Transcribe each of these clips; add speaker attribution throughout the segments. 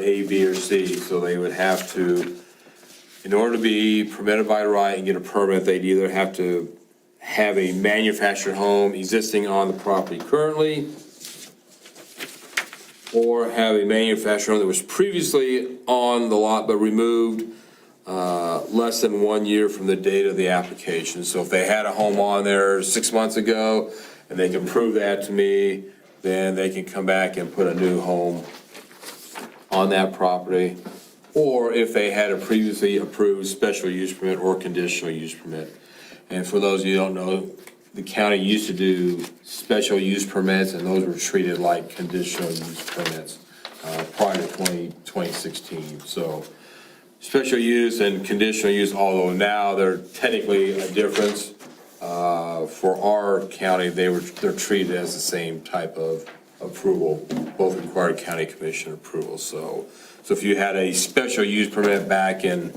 Speaker 1: A, B, or C, so they would have to, in order to be permitted by right and get a permit, they'd either have to have a manufactured home existing on the property currently, or have a manufactured home that was previously on the lot but removed uh, less than one year from the date of the application. So if they had a home on there six months ago, and they can prove that to me, then they can come back and put a new home on that property, or if they had a previously approved special use permit or conditional use permit. And for those of you who don't know, the county used to do special use permits, and those were treated like conditional use permits uh, prior to 20 2016. So special use and conditional use, although now they're technically a difference, uh, for our county, they were, they're treated as the same type of approval. Both require county commission approval, so, so if you had a special use permit back in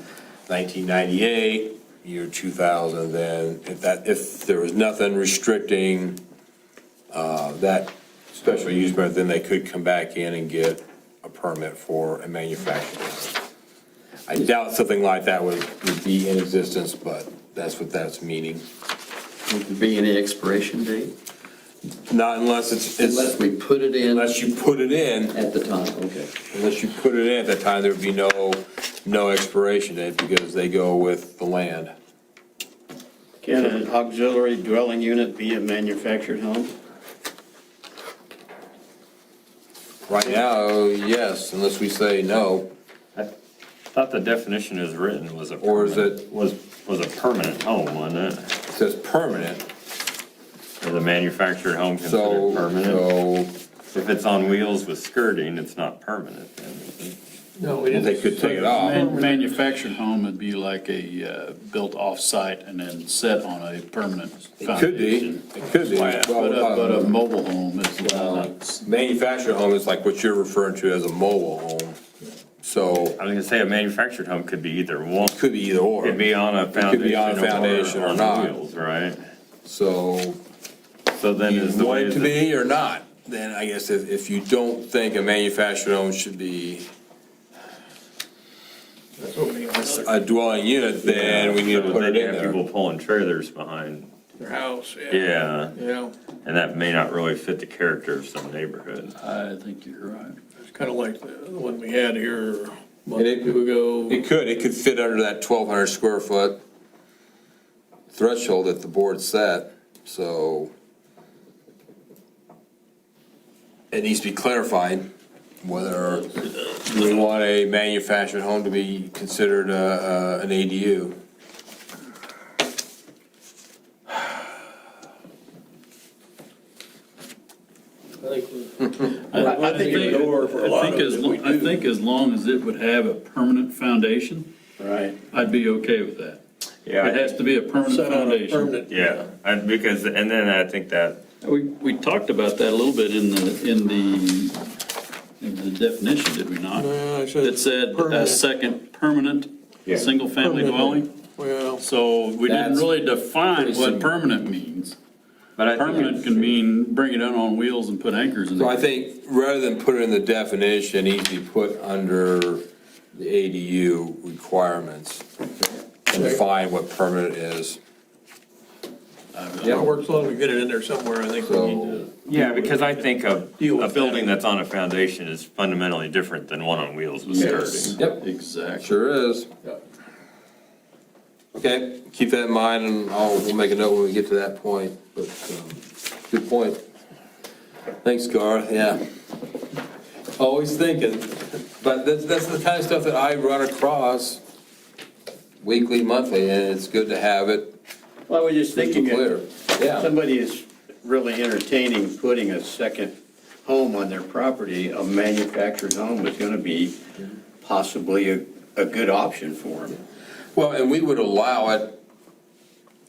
Speaker 1: 1998, year 2000, then if that, if there was nothing restricting uh, that special use permit, then they could come back in and get a permit for a manufacturer. I doubt something like that would would be in existence, but that's what that's meaning.
Speaker 2: Would there be any expiration date?
Speaker 1: Not unless it's,
Speaker 2: Unless
Speaker 1: it's-
Speaker 2: we put it in
Speaker 1: unless you put it in,
Speaker 2: at the time, okay.
Speaker 1: unless you put it in at that time, there'd be no, no expiration date because they go with the land.
Speaker 3: Can an auxiliary dwelling unit be a manufactured home?
Speaker 1: Right now, yes, unless we say no,
Speaker 4: I thought the definition as written was a.
Speaker 1: Or is
Speaker 4: permanent-
Speaker 1: it-
Speaker 4: Was, was a permanent home, wasn't it?
Speaker 1: it says permanent,
Speaker 4: Is a manufactured home
Speaker 1: so,
Speaker 4: considered permanent?
Speaker 1: so
Speaker 4: If it's on wheels with skirting, it's not permanent then. is it?
Speaker 1: they could take it off.
Speaker 5: Man- Manufactured home would be like a uh, built off-site and then set on a permanent
Speaker 1: It could be,
Speaker 5: foundation.
Speaker 1: it could be.
Speaker 5: But
Speaker 1: Well,
Speaker 5: a, but uh, a
Speaker 1: um,
Speaker 5: mobile home is not,
Speaker 1: Manufactured home is like what you're referring to as a mobile home, so
Speaker 4: I was gonna say a manufactured home could be either one,
Speaker 1: could be either or.
Speaker 4: could be on a
Speaker 1: could be on a foundation
Speaker 4: foundation
Speaker 1: or
Speaker 4: or
Speaker 1: not.
Speaker 4: on wheels, right?
Speaker 1: So
Speaker 4: So then
Speaker 1: you
Speaker 4: is the
Speaker 1: want
Speaker 4: way
Speaker 1: it to
Speaker 4: that-
Speaker 1: be or not, then I guess if, if you don't think a manufactured home should be a dwelling unit, then we need to
Speaker 4: So
Speaker 1: put it
Speaker 4: they'd
Speaker 1: in
Speaker 4: have
Speaker 1: there.
Speaker 4: People pulling trailers behind,
Speaker 6: Their house, yeah,
Speaker 4: yeah,
Speaker 6: yeah.
Speaker 4: and that may not really fit the character of some neighborhood.
Speaker 5: I think you're right.
Speaker 6: It's kind of like the one we had here a month
Speaker 1: And it-
Speaker 6: or two ago.
Speaker 1: It could, it could fit under that twelve hundred square foot threshold that the board set, so it needs to be clarified whether we want a manufactured home to be considered uh, uh, an ADU.
Speaker 5: I
Speaker 6: I think it would go for a lot
Speaker 5: think
Speaker 6: of
Speaker 5: as
Speaker 6: it if
Speaker 5: lo-
Speaker 6: we
Speaker 5: I
Speaker 6: do.
Speaker 5: think as long as it would have a permanent foundation,
Speaker 3: Right.
Speaker 5: I'd be okay with that.
Speaker 4: Yeah.
Speaker 5: It has to be a permanent
Speaker 6: Set on a
Speaker 5: foundation.
Speaker 6: permanent.
Speaker 4: Yeah, I- because, and then I think that,
Speaker 5: We, we talked about that a little bit in the, in the, in the definition, did we not? That said, a
Speaker 6: uh, Permanent.
Speaker 5: second permanent,
Speaker 4: Yeah.
Speaker 5: single-family
Speaker 6: Permanent.
Speaker 5: dwelling.
Speaker 6: Well,
Speaker 5: So we didn't
Speaker 1: That's
Speaker 5: really define
Speaker 1: simple.
Speaker 5: what permanent means.
Speaker 4: but I think.
Speaker 5: Permanent can mean bring it in on wheels and put anchors in
Speaker 1: So I
Speaker 5: it.
Speaker 1: think rather than put it in the definition, it needs to be put under the ADU requirements and define what permanent is.
Speaker 6: yeah, it works long to get it in there somewhere, I think we need to.
Speaker 1: So
Speaker 4: Yeah, because I think a,
Speaker 6: Deal
Speaker 4: a
Speaker 6: with
Speaker 4: building that's on a foundation is fundamentally different than one on wheels with skirting.
Speaker 1: Yep.
Speaker 5: Exactly.
Speaker 1: sure is. Okay, keep that in mind and I'll, we'll make a note when we get to that point, but, um, good point. Thanks, Gar, yeah. Always thinking, but that's, that's the kind of stuff that I run across weekly, monthly, and it's good to have it
Speaker 3: Well, I was just thinking,
Speaker 1: clear.
Speaker 3: if
Speaker 1: Yeah.
Speaker 3: somebody is really entertaining putting a second home on their property, a manufactured home is gonna be possibly a, a good option for them.
Speaker 1: Well, and we would allow it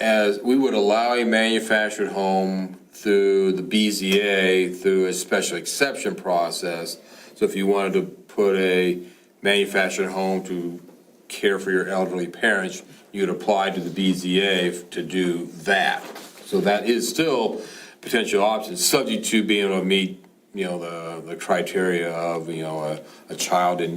Speaker 1: as, we would allow a manufactured home through the BZA, through a special exception process. So if you wanted to put a manufactured home to care for your elderly parents, you'd apply to the BZA to do that. So that is still a potential option, subject to being able to meet, you know, the, the criteria of, you know, a, a child in